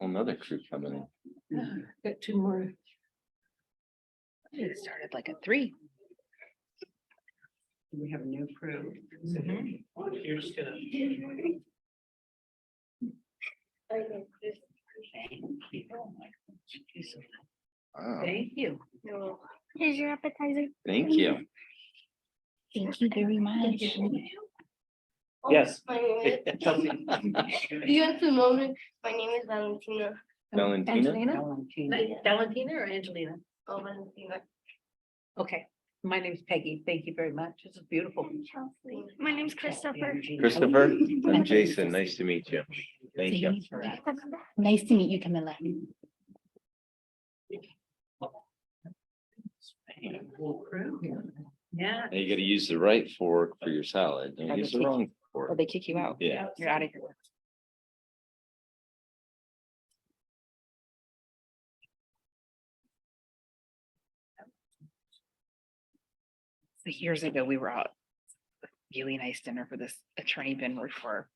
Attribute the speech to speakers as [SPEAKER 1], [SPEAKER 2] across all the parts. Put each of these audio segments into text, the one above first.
[SPEAKER 1] Another crew coming in.
[SPEAKER 2] Got two more.
[SPEAKER 3] It started like at three.
[SPEAKER 2] We have a new crew.
[SPEAKER 4] Mm-hmm. You're just gonna.
[SPEAKER 1] Wow,
[SPEAKER 3] Thank you.
[SPEAKER 5] Here's your appetizer.
[SPEAKER 1] thank you.
[SPEAKER 3] Thank you very much.
[SPEAKER 5] Oh,
[SPEAKER 4] Yes.
[SPEAKER 5] My name is-
[SPEAKER 4] Chelsea.
[SPEAKER 5] You have to know me. My name is Valentina.
[SPEAKER 1] Valentina,
[SPEAKER 2] Valentina.
[SPEAKER 3] Valentina or Angelina?
[SPEAKER 5] Oh, Valentina.
[SPEAKER 3] Okay, my name's Peggy. Thank you very much. This is beautiful.
[SPEAKER 5] My name's Christopher.
[SPEAKER 1] Christopher, I'm Jason. Nice to meet you. Thank you.
[SPEAKER 3] Nice to meet you, Camilla. Yeah.
[SPEAKER 1] Now you gotta use the right fork for your salad. Don't use the wrong
[SPEAKER 3] Or
[SPEAKER 1] fork.
[SPEAKER 3] they kick you out.
[SPEAKER 1] Yeah.
[SPEAKER 3] You're out of here. So years ago, we were out. Really nice dinner for this attorney Ben worked for.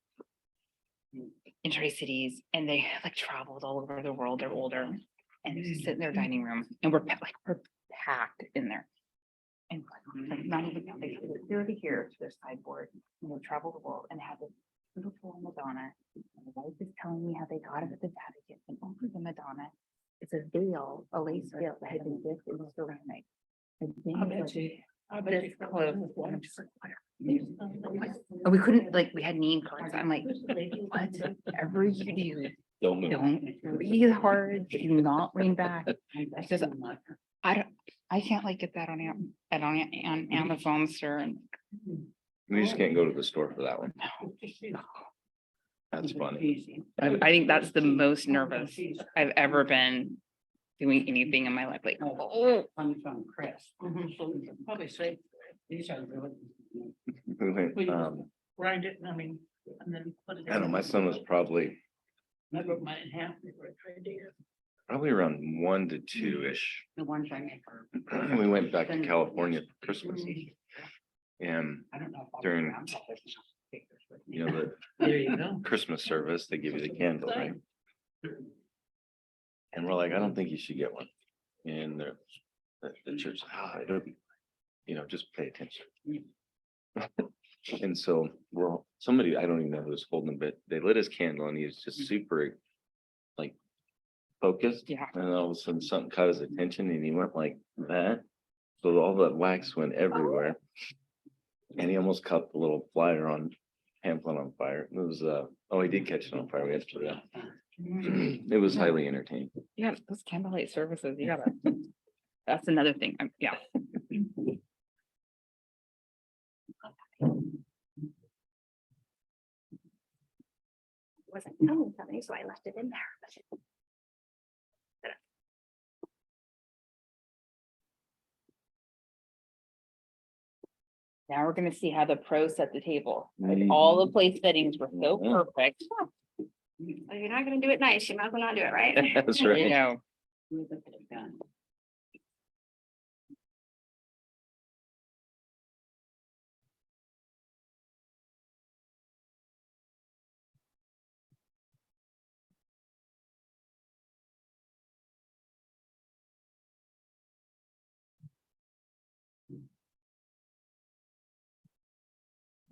[SPEAKER 3] In Tri Cities and they like traveled all over the world. They're older and they just sit in their dining room and we're pa- like, we're packed in there. And like not even, they they're over here to their sideboard, you know, travel the world and have this beautiful Madonna. And the wife is telling me how they got it at the Vatican and over the Madonna. It's a veil, a lace veil that had been dipped in ceramic. And then
[SPEAKER 2] I'll
[SPEAKER 3] it was
[SPEAKER 2] bet you. I'll bet
[SPEAKER 3] this
[SPEAKER 2] you come
[SPEAKER 3] close,
[SPEAKER 2] up with
[SPEAKER 3] and
[SPEAKER 2] one.
[SPEAKER 3] I'm just like, what are you- And we couldn't, like, we had name cards. I'm like, whatever you do,
[SPEAKER 1] Don't move.
[SPEAKER 3] don't breathe hard, do not lean back. Because I don't, I can't like get that on, Am- at on, on Amazon, sir. and-
[SPEAKER 1] We just can't go to the store for that one. That's funny.
[SPEAKER 3] I, I think that's the most nervous I've ever been doing anything in my life, like, oh,
[SPEAKER 2] One from Chris.
[SPEAKER 6] Mm-hmm.
[SPEAKER 2] So we can Probably say, these are really.
[SPEAKER 1] We went, um,
[SPEAKER 2] Grind it, I mean, and then put it.
[SPEAKER 1] I don't know, my son was probably,
[SPEAKER 2] I broke mine in half before I tried to.
[SPEAKER 1] probably around one to two-ish.
[SPEAKER 2] The ones I make are.
[SPEAKER 1] We went back to California for Christmas and,
[SPEAKER 2] I don't know. if I'll be
[SPEAKER 1] During,
[SPEAKER 2] around for this.
[SPEAKER 1] you know, the
[SPEAKER 4] There you go.
[SPEAKER 1] Christmas service, they give you the candle, right? And we're like, I don't think you should get one. And the, the, the church, ah, it'll be, you know, just pay attention. And so, we're all somebody, I don't even know who was holding, it, but they lit his candle and he was just super, like, focused.
[SPEAKER 3] yeah.
[SPEAKER 1] And then all of a sudden something caught his attention and he went like that. So all that wax went everywhere. And he almost caught the little flyer on pamphlet on fire. It was, uh, oh, he did catch it on fire. We had to put it out. It was highly entertaining.
[SPEAKER 3] Yeah, those candlelight services, you gotta, that's another thing, I'm- yeah.
[SPEAKER 5] Wasn't telling something, so I left it in there.
[SPEAKER 3] Now we're gonna see how the pros set the table. All the place settings were so
[SPEAKER 1] Yeah.
[SPEAKER 3] perfect.
[SPEAKER 5] Well, you're not gonna do it nice. You might as well not do it right.
[SPEAKER 1] That's
[SPEAKER 3] You
[SPEAKER 1] right.
[SPEAKER 3] know,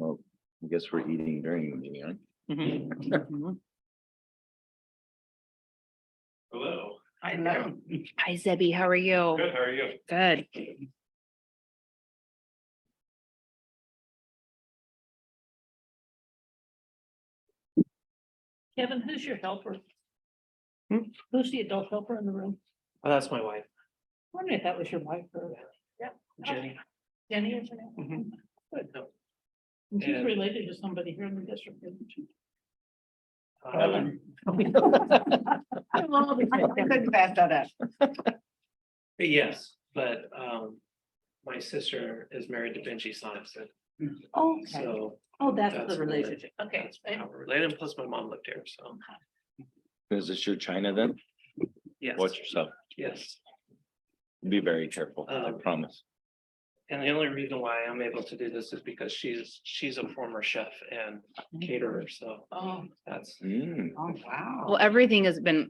[SPEAKER 1] I guess we're eating during the meeting, right?
[SPEAKER 3] mhm, mhm.
[SPEAKER 6] Hello,
[SPEAKER 2] I know.
[SPEAKER 3] Hi Zebby, how are you?
[SPEAKER 6] good, how are you?
[SPEAKER 3] Good.
[SPEAKER 2] Kevin, who's your helper?
[SPEAKER 4] Hmm?
[SPEAKER 2] Who's the adult helper in the room?
[SPEAKER 4] Oh, that's my wife,
[SPEAKER 2] I wondered if that was your wife or
[SPEAKER 4] Jenny.
[SPEAKER 2] Oh, Jenny or something.
[SPEAKER 4] Mhm.
[SPEAKER 2] Good. And She's
[SPEAKER 4] And-
[SPEAKER 2] related to somebody here in the district. isn't she?
[SPEAKER 4] Um, Yes, but um, my sister is married to Benji Sampson,
[SPEAKER 2] Oh, okay.
[SPEAKER 4] so.
[SPEAKER 2] oh, that's
[SPEAKER 4] that's
[SPEAKER 2] the
[SPEAKER 4] where-
[SPEAKER 2] relationship. Okay.
[SPEAKER 4] that's how we're Related, and plus my mom lived here, so.
[SPEAKER 1] Is this your China then?
[SPEAKER 4] Yes,
[SPEAKER 1] Watch yourself.
[SPEAKER 4] yes.
[SPEAKER 1] Be very careful. I
[SPEAKER 4] Um,
[SPEAKER 1] promise.
[SPEAKER 4] And the only reason why I'm able to do this is because she's, she's a former chef and caterer, so
[SPEAKER 2] Oh,
[SPEAKER 4] that's.
[SPEAKER 1] Mm.
[SPEAKER 2] oh, wow.
[SPEAKER 3] Well, everything has been